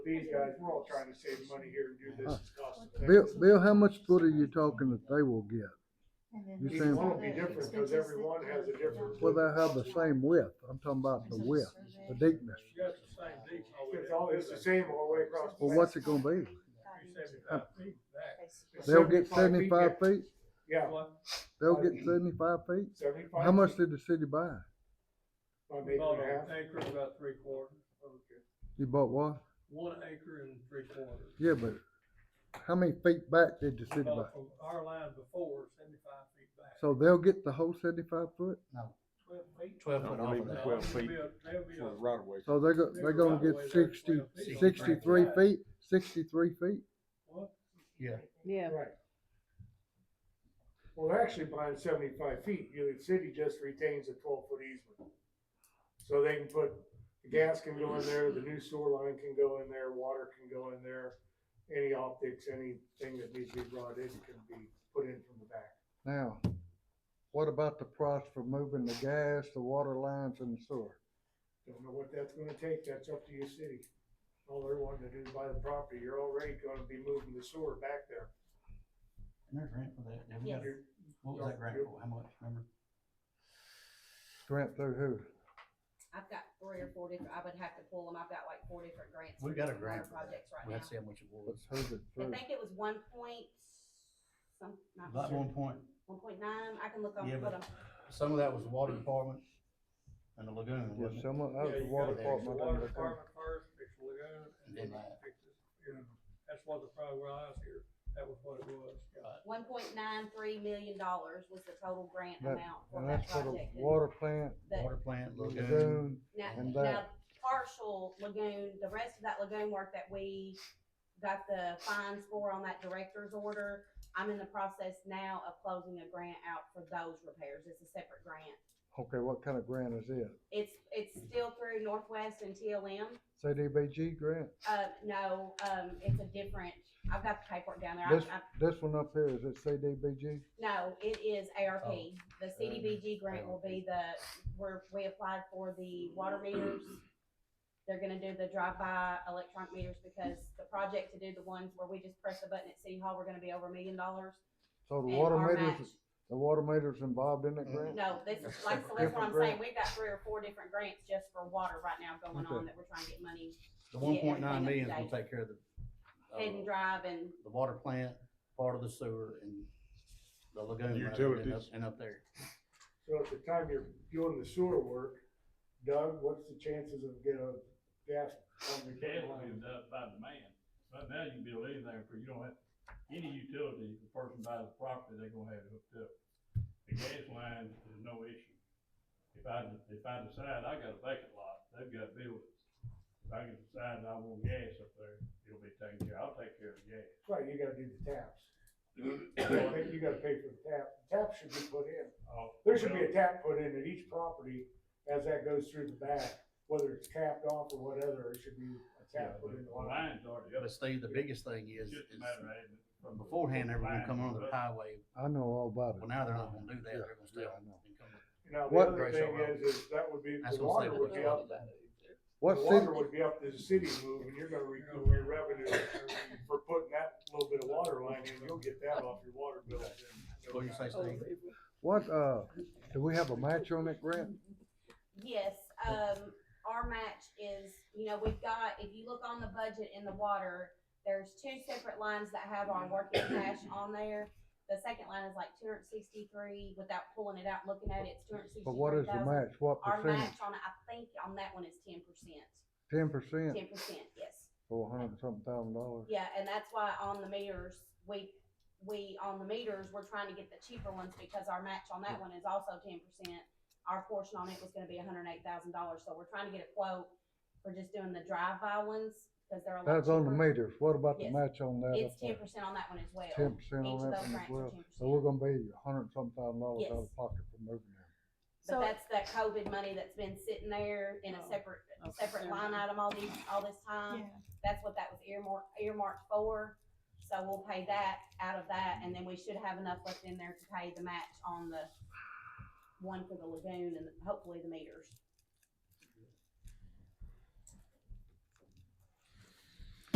these guys, we're all trying to save money here and do this as cost Bill, effective. Bill, how much foot are you talking that they will get? You're Each saying- one will be different, cause every one has a different. Well, they have the same width. I'm talking about the width, the deepness. You got the same deep. It's all, it's the same all the way across. the Well, what's it gonna be? Seventy-five feet back. back. They'll get feet, seventy-five feet? Yeah, What? They'll get seventy-five feet? seventy-five. How much feet, did the city buy? About an acre About an and a half. acre, about three quarters. You bought what? One acre and three quarters. Yeah, but how many feet back did the city buy? About from our line before, seventy-five feet back. So they'll get the whole seventy-five foot? Twelve feet? Twelve foot off of No, that. Twelve there'll feet be a- there'll be a- for right of way. So they're go, they're gonna get sixty, sixty-three feet, sixty-three feet? what? Yeah, Right. Well, they're actually buying seventy-five feet, you know, the city just retains a twelve-foot easement. So they can put, the gas can go in there, the new sewer line can go in there, water can go in there, any optics, anything that needs to be brought in can be put in from the back. Now, what about the price for moving the gas, the water lines and the sewer? Don't know what that's gonna take, that's up to you, city. All they're wanting to do is buy the property, you're already gonna be moving the sewer back there. There's rent for that. Then we got- You're- What was that grant for? How much, remember? Grant through who? I've got three or four different, I would have to pull them, I've got like four different grants. We for got a grant different water for that. Projects right We have to see now. how much it was. Let's hold it I through. think it was one point, some, not Lot sure, one point, one point nine, I can look up, Yeah, but um, but- I'm, some of that was water department and the lagoon, Yeah, wasn't it? someone, that was Yeah, the you water gotta fix the department. I Water didn't think. department first, fix the lagoon, and then Then that. fix it. You know, That's what the problem was here. That was what it was. one point nine three million dollars was the total grant That- amount for And that that's for the project. water plant, But Water plant, lagoon, lagoon, Now, and now that. partial lagoon, the rest of that lagoon work that we got the fines for on that director's order, I'm in the process now of closing a grant out for those repairs. It's a separate grant. Okay, what kind of grant is it? It's, it's still through Northwest and TLM. CDBG grant? Uh, no, um, it's a different, I've got the paperwork down there. This, I, I, this one up here, is it CDBG? no, it is ARP. Oh. The CDBG grant will be the, we're, we applied for the water meters. They're gonna do the drive-by electronic meters because the project to do the ones where we just press the button at City Hall, we're gonna be over a million dollars. So the And water our meters, match- the water meters involved in that Mm. grant? No, this is, like, so that's what I'm saying. We've got three or four different grants just for water right now going on Okay. that we're trying to get money. the one point nine million Yeah, will everything take care of the, Head and uh, drive and the water plant, part of the sewer and the lagoon. right, and up- Utilities. And up there. So at the time you're doing the sewer work, Doug, what's the chances of getting a gas on the Gas will be line? done by demand. Right now, you can build anything for, you don't have, any utility, the person buys the property, they are gonna have it hooked up. The gas line is no issue. If I, if I decide I got a vacant lot, they've got buildings. If I can decide I want gas up there, it'll be taken care, I'll take care of the gas. Right, you gotta do the taps. You gotta pay- You gotta pay for the tap. The Tap should be put in. I'll- There should be a tap put in at each property as that goes through the back, whether it's capped off or whatever, it should be a Yeah, tap but put in the the line. line's already up. But Steve, the biggest thing is, It's is just a matter of adding it from the- beforehand, they were gonna line come to on the the other. highway. Mm-hmm. I know all about Well, it. now they're not gonna do that. Yeah, They're gonna stay yeah, on. I know. and come- Now, the What- other thing is, is that would be, That's the what I'm water saying. would be up, the What city, water would be up to the city move, and you're gonna recoup your revenue for putting that little bit of water line in, you'll get that off your water bill. in no What do you say, time. Steve? what, uh, do we have a match on that grant? Yes, um, our match is, you know, we've got, if you look on the budget in the water, there's two separate lines that have our working cash on there. The second line is like two hundred sixty-three, without pulling it out, and looking at it, it's two hundred But what sixty-three is the thousand. match? What Our percentage? match on, I think on that one is ten percent, Ten percent ten percent, yes. or a hundred and something thousand dollars? Yeah, and that's why on the meters, we, we, on the meters, we're trying to get the cheaper ones because our match on that one is also ten percent. Our portion on it was gonna be hundred and eight thousand dollars, so we're trying to get a quote for just doing the drive-by ones, cause they're a lot cheaper. That's on the meters. What about the Yes. match on that It's up ten there? percent on that one as well. Ten percent Each on of that those one as grants are well. 10%. So we're gonna be a hundred and something thousand dollars out Yes. of pocket for moving them. But so, that's that COVID money that's been sitting there in a Oh, separate, okay. separate line item all these, all this time. yeah, That's what that was earmarked, earmarked for, so we'll pay that out of that, and then we should have enough left in there to pay the match on the one for the lagoon and hopefully the meters.